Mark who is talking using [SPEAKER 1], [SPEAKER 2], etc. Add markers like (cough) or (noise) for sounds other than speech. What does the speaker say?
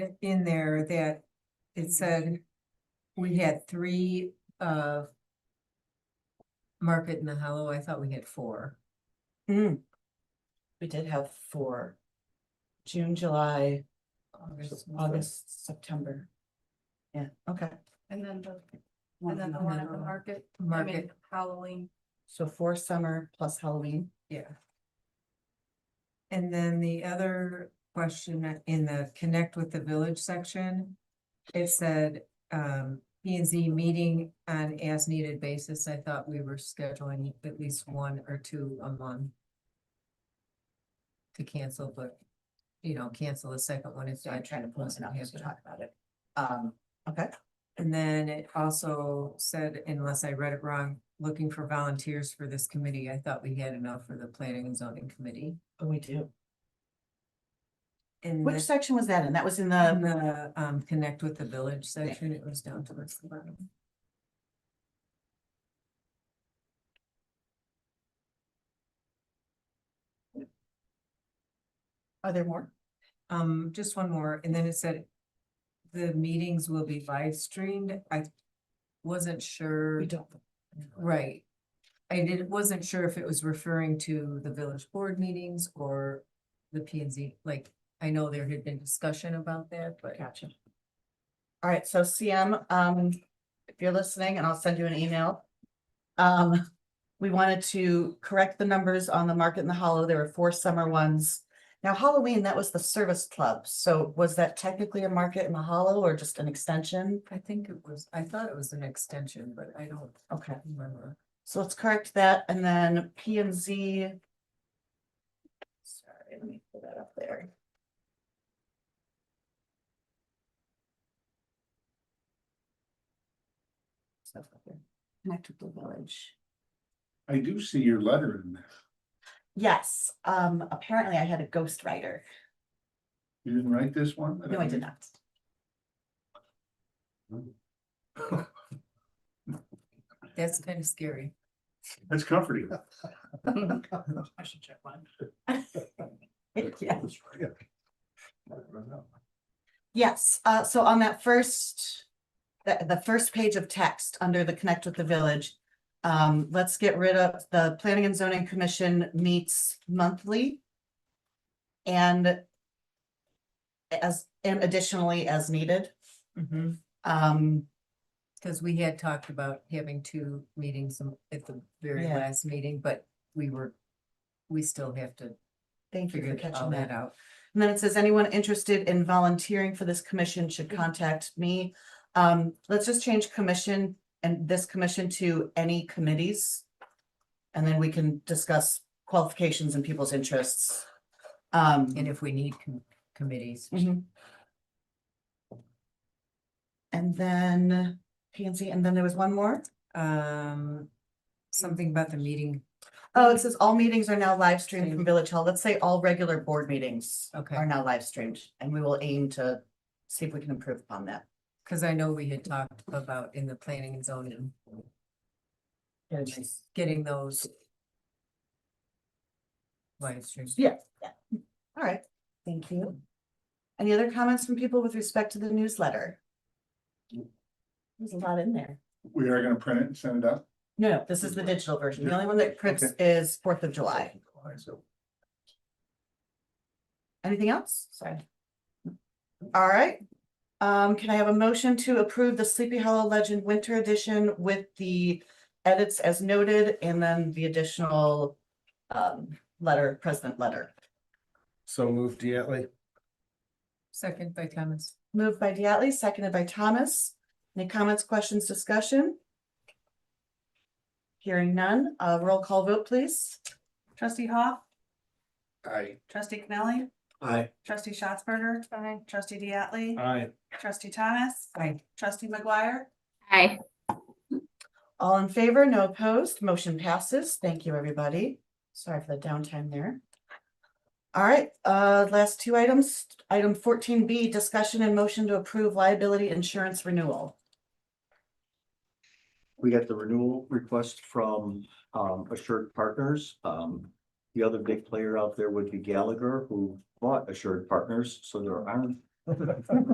[SPEAKER 1] in there that it said we had three of Market in the Hollow, I thought we had four.
[SPEAKER 2] We did have four. June, July,
[SPEAKER 1] August.
[SPEAKER 2] August, September. Yeah, okay.
[SPEAKER 3] And then the,
[SPEAKER 2] One
[SPEAKER 3] and then the
[SPEAKER 2] month.
[SPEAKER 3] one at the market, I mean,
[SPEAKER 1] Market,
[SPEAKER 3] Halloween.
[SPEAKER 2] So four summer plus Halloween.
[SPEAKER 1] yeah. And then the other question in the connect with the village section, it said, um, P and Z meeting on as needed basis. I thought we were scheduling at least one or two a month. To cancel, but, you know, cancel the second one if.
[SPEAKER 2] So I'm trying to pull it
[SPEAKER 1] doesn't
[SPEAKER 2] up as we
[SPEAKER 1] happen.
[SPEAKER 2] talk about it. Um, okay,
[SPEAKER 1] And then it also said, unless I read it wrong, looking for volunteers for this committee. I thought we had enough for the planning and zoning committee.
[SPEAKER 2] Oh, we do.
[SPEAKER 1] And
[SPEAKER 3] Mm-hmm.
[SPEAKER 2] Which
[SPEAKER 1] then
[SPEAKER 2] section was that in? That was in
[SPEAKER 1] on
[SPEAKER 2] the,
[SPEAKER 1] uh, the, um, connect with the village section, it was down towards the bottom.
[SPEAKER 2] are there more?
[SPEAKER 1] Um, just one more, and then it said the meetings will be live streamed. I wasn't sure,
[SPEAKER 2] We don't.
[SPEAKER 1] right? I did, wasn't sure if it was referring to the village board meetings or the P and Z, like, I know there had been discussion about that, but.
[SPEAKER 2] Gotcha. All right, so CM, um, if you're listening, and I'll send you an email. Um, we wanted to correct the numbers on the market in the hollow. There were four summer ones. Now Halloween, that was the service club. So was that technically a market in the hollow or just an extension?
[SPEAKER 1] I think it was, I thought it was an extension, but I don't
[SPEAKER 2] Okay,
[SPEAKER 1] remember.
[SPEAKER 2] so let's correct that and then P and Z. Sorry, let me pull that up there. Stuff up there. Connect with the village.
[SPEAKER 4] I do see your letter in there.
[SPEAKER 2] Yes, um, apparently I had a ghostwriter.
[SPEAKER 4] You didn't write this one?
[SPEAKER 2] No, I did not.
[SPEAKER 1] That's kind of scary.
[SPEAKER 2] (laughs)
[SPEAKER 4] That's comforting.
[SPEAKER 2] I should check mine. (laughs) Yeah. Yes, uh, so on that first, the, the first page of text under the connect with the village. Um, let's get rid of the planning and zoning commission meets monthly. And as, and additionally as needed, Mm-hmm. um,
[SPEAKER 1] Because we had talked about having two meetings m- at the very
[SPEAKER 2] Yeah.
[SPEAKER 1] last meeting, but we were, we still have to
[SPEAKER 2] thank you for
[SPEAKER 1] figure all
[SPEAKER 2] catching that
[SPEAKER 1] that out.
[SPEAKER 2] And then it says, anyone interested in volunteering for this commission should contact me. Um, let's just change commission and this commission to any committees. And then we can discuss qualifications and people's interests. Um,
[SPEAKER 1] And if we need com- committees,
[SPEAKER 2] mhm. And then Pansy, and then there was one more.
[SPEAKER 1] um, something about the meeting,
[SPEAKER 2] Oh, it says all meetings are now live streamed
[SPEAKER 1] Same.
[SPEAKER 2] from Village Hall. Let's say all regular board meetings
[SPEAKER 1] Okay.
[SPEAKER 2] are now live streamed and we will aim to see if we can improve upon that.
[SPEAKER 1] because I know we had talked about in the planning and zoning,
[SPEAKER 2] Very nice.
[SPEAKER 1] getting those live streams.
[SPEAKER 2] Yeah. All right, thank you. Any other comments from people with respect to the newsletter? There's a lot in there.
[SPEAKER 4] We are gonna print it and send it out.
[SPEAKER 2] No, no, this is the digital version. The only one that prints is Fourth of July.
[SPEAKER 4] So
[SPEAKER 2] Anything else? Sorry. All right. Um, can I have a motion to approve the Sleepy Hollow Legend Winter Edition with the edits as noted and then the additional um, letter, president letter?
[SPEAKER 5] So moved Diatley.
[SPEAKER 1] Second by Thomas.
[SPEAKER 2] Moved by Diatley, seconded by Thomas. Any comments, questions, discussion? Hearing none, uh, roll call vote, please.
[SPEAKER 6] Trustee Hoff,
[SPEAKER 4] I,
[SPEAKER 6] trustee Connelly,
[SPEAKER 5] Aye.
[SPEAKER 6] trustee Schatzberger,
[SPEAKER 3] Aye.
[SPEAKER 6] trustee Diatley,
[SPEAKER 5] Aye. (laughs)
[SPEAKER 6] trustee Thomas,
[SPEAKER 1] Aye.
[SPEAKER 6] trustee McGuire.
[SPEAKER 3] Hi.
[SPEAKER 2] All in favor, no opposed, motion passes. Thank you, everybody. Sorry for the downtime there. All right, uh, last two items, item fourteen B, discussion and motion to approve liability insurance renewal.
[SPEAKER 7] We got the renewal request from um Assured Partners. Um, the other big player out there would be Gallagher, who bought Assured Partners, so there aren't